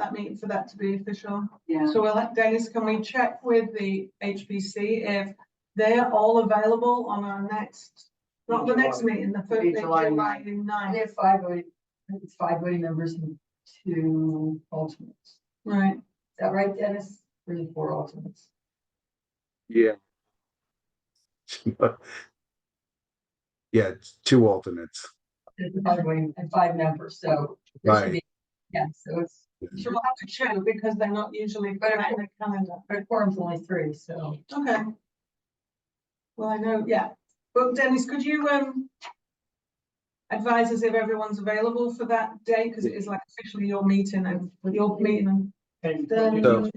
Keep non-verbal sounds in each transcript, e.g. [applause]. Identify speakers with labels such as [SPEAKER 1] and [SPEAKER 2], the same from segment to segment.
[SPEAKER 1] that meeting for that to be official.
[SPEAKER 2] Yeah,
[SPEAKER 1] So we'll, Dennis, can we check with the HPC if they're all available on our next, not the next meeting, the
[SPEAKER 2] It'll be
[SPEAKER 1] third,
[SPEAKER 2] July
[SPEAKER 1] July
[SPEAKER 3] And
[SPEAKER 1] ninth,
[SPEAKER 3] if five voting, I think it's five voting members and two alternates. Is
[SPEAKER 1] right?
[SPEAKER 3] that right, Dennis? Three, four alternates.
[SPEAKER 4] Yeah. [laughs] Yeah, it's two alternates.
[SPEAKER 3] There's the five voting and five members, so. there should
[SPEAKER 4] Right.
[SPEAKER 3] be Yeah, so it's,
[SPEAKER 1] So we'll have to check because they're not usually put
[SPEAKER 3] But
[SPEAKER 1] in the calendar.
[SPEAKER 3] but a quorum's only three, so.
[SPEAKER 1] Okay. Well, I know, yeah. But Dennis, could you, um, advise us if everyone's available for that day? Because it is like officially your meeting and your meeting.
[SPEAKER 5] And
[SPEAKER 1] and
[SPEAKER 4] So-
[SPEAKER 1] then-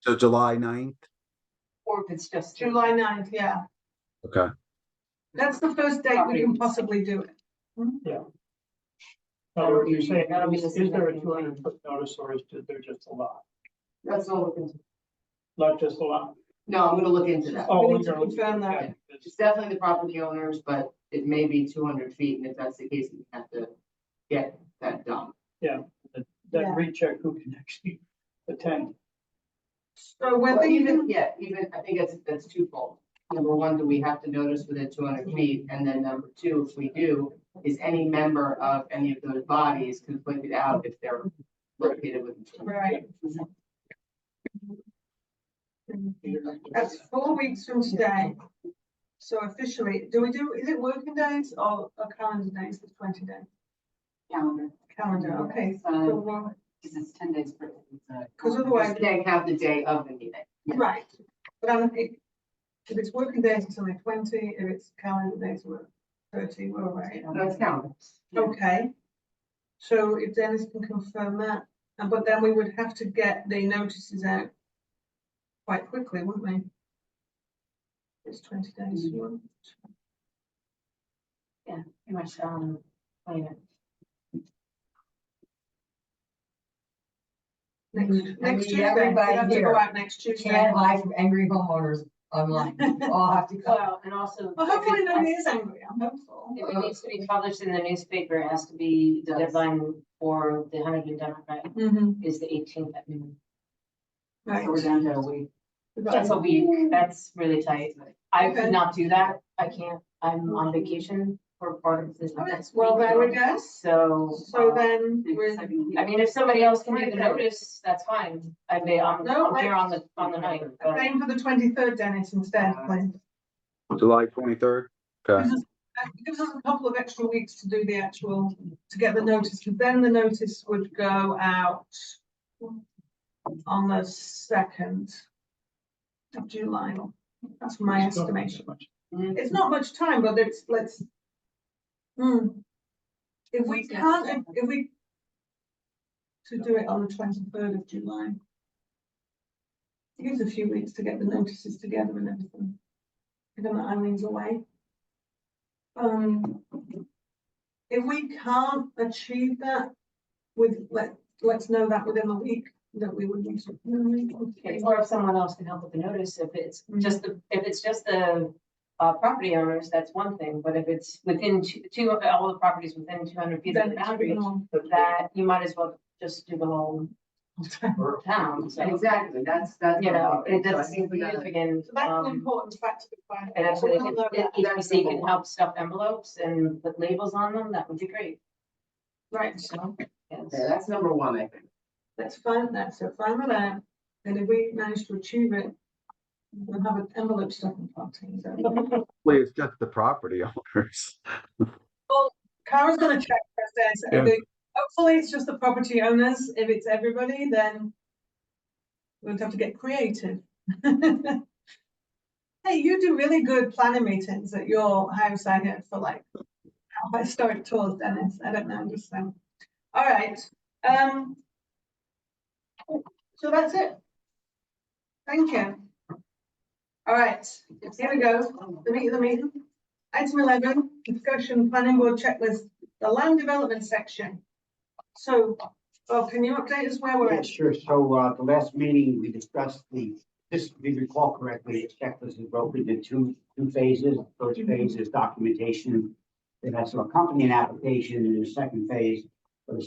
[SPEAKER 4] So July ninth?
[SPEAKER 2] or if it's just.
[SPEAKER 1] July 9th, yeah.
[SPEAKER 4] Okay.
[SPEAKER 1] That's the first date we can possibly do it.
[SPEAKER 5] what you're saying,
[SPEAKER 2] That'll be the
[SPEAKER 5] is
[SPEAKER 2] same
[SPEAKER 5] is there a
[SPEAKER 2] thing.
[SPEAKER 5] two hundred foot notice or is there just a lot?
[SPEAKER 2] That's all we're gonna-
[SPEAKER 5] Not just a lot?
[SPEAKER 2] No, I'm gonna look into that.
[SPEAKER 5] Oh,
[SPEAKER 1] We need to
[SPEAKER 5] you're looking-
[SPEAKER 1] confirm that.
[SPEAKER 5] okay, it's-
[SPEAKER 2] It's definitely the property owners, but it may be two hundred feet, and if that's the case, we have to get that done.
[SPEAKER 1] Yeah.
[SPEAKER 5] Then recheck who can [laughs] actually attend.
[SPEAKER 1] So
[SPEAKER 2] Well,
[SPEAKER 1] whether you
[SPEAKER 2] even,
[SPEAKER 1] can,
[SPEAKER 2] yeah, even, I think that's, that's twofold. Number one, do we have to notice within two hundred feet? And then number two, if we do, is any member of any of those bodies conflicted out if they're located within two hundred?
[SPEAKER 1] right, that's four weeks from today. So officially, do we do, is it working days or or calendar days, the twenty day?
[SPEAKER 6] calendar.
[SPEAKER 1] Calendar, okay.
[SPEAKER 6] Uh,
[SPEAKER 1] So,
[SPEAKER 6] Because it's ten days. per- it's uh, a-
[SPEAKER 1] 'Cause otherwise-
[SPEAKER 2] Just They have the day of the meeting.
[SPEAKER 1] Right, but I'm, it- if it's working days until the twenty, if it's calendar days, we're thirty, we're all right.
[SPEAKER 2] No, it's calendar.
[SPEAKER 1] Okay. So if Dennis can confirm that, and but then we would have to get the notices out quite quickly, wouldn't we? It's twenty days.
[SPEAKER 6] Mhm.
[SPEAKER 1] one,
[SPEAKER 6] Pretty much, um, later.
[SPEAKER 1] Next, next
[SPEAKER 3] Mm-hmm. need
[SPEAKER 1] Tuesday, we
[SPEAKER 3] everybody
[SPEAKER 1] have to
[SPEAKER 3] here.
[SPEAKER 1] go out next
[SPEAKER 3] You
[SPEAKER 1] Tuesday.
[SPEAKER 3] can't hide from angry homeowners online. You all have to come.
[SPEAKER 6] Well, and also.
[SPEAKER 1] Well, hopefully nobody is angry, I'm hopeful.
[SPEAKER 6] If it needs to be published in the newspaper, it has to be, the deadline for the Huntington Democrat
[SPEAKER 1] Mm-hmm,
[SPEAKER 6] is the eighteenth at noon.
[SPEAKER 1] right.
[SPEAKER 6] So we're down to a week.
[SPEAKER 1] We've got-
[SPEAKER 6] That's a week, that's really tight. I
[SPEAKER 1] Okay.
[SPEAKER 6] could not do that. I can't, I'm on vacation for part of this.
[SPEAKER 1] All right,
[SPEAKER 6] next
[SPEAKER 1] Well,
[SPEAKER 6] week.
[SPEAKER 1] there we go.
[SPEAKER 6] So.
[SPEAKER 1] So
[SPEAKER 6] uh,
[SPEAKER 1] then, we're,
[SPEAKER 6] I mean, if somebody else can do the
[SPEAKER 1] Okay.
[SPEAKER 6] notice, that's fine. I may, I'm,
[SPEAKER 1] No,
[SPEAKER 6] I'm
[SPEAKER 1] I-
[SPEAKER 6] here on the, on the night, but.
[SPEAKER 1] aim for the twenty-third, Dennis, instead, please.
[SPEAKER 4] July twenty-third? Okay,
[SPEAKER 1] Gives us- uh, Gives us a couple of extra weeks to do the actual, to get the notice, because then the notice would go out on the second of July. That's my
[SPEAKER 5] It's not that
[SPEAKER 1] estimation.
[SPEAKER 5] much.
[SPEAKER 1] It's not much time, but it's, let's. Hmm. If we can't, if- if we to do it on the twenty-third of July. It gives a few weeks to get the notices together and everything. Given that Eileen's away. Um. If we can't achieve that with, let, let's know that within a week, that we would need to.
[SPEAKER 6] Okay, Or if someone else can help with the notice, if it's just the, if it's just the uh, property owners, that's one thing, but if it's within two, two, of- all the properties within two hundred feet of
[SPEAKER 1] Then
[SPEAKER 6] the
[SPEAKER 1] it's pretty
[SPEAKER 6] boundary,
[SPEAKER 1] long.
[SPEAKER 5] That's-
[SPEAKER 6] that you might as well just do the whole
[SPEAKER 5] or-
[SPEAKER 6] town, so,
[SPEAKER 2] Exactly, that's, that's.
[SPEAKER 6] you know,
[SPEAKER 2] what I'm
[SPEAKER 6] it
[SPEAKER 2] thinking. So I
[SPEAKER 6] does
[SPEAKER 2] think we gotta-
[SPEAKER 6] significant.
[SPEAKER 1] So that's an
[SPEAKER 6] um,
[SPEAKER 1] important fact to find.
[SPEAKER 6] And actually, if
[SPEAKER 1] We'll know that.
[SPEAKER 6] if HPC can help stuff envelopes and put labels on them, that would be great,
[SPEAKER 1] Right,
[SPEAKER 6] so. yes.
[SPEAKER 2] Okay, that's number one, I think.
[SPEAKER 1] let's find that, so find that out, and if we manage to achieve it, we'll have an envelope stuffing party, so.
[SPEAKER 4] Hopefully it's just the property owners.
[SPEAKER 1] Cara's gonna check first, so
[SPEAKER 4] Yeah.
[SPEAKER 1] the- hopefully it's just the property owners, if it's everybody, then we'll have to get creative. [laughs] Hey, you do really good planning meetings at your house, I hear, for like historic tours, Dennis, I don't know, just saying. All right, um. So that's it. Thank you. All right, here we go the meat of the meeting. Item eleven, discussion planning board checklist, the land development section. So, Bob, can you update us where we're
[SPEAKER 7] Yeah,
[SPEAKER 1] at?
[SPEAKER 7] sure. So, uh, the last meeting, we discussed the, this, if we recall correctly, the checklist is broken into two, two phases. First phase is documentation that has to accompany an application, and the second phase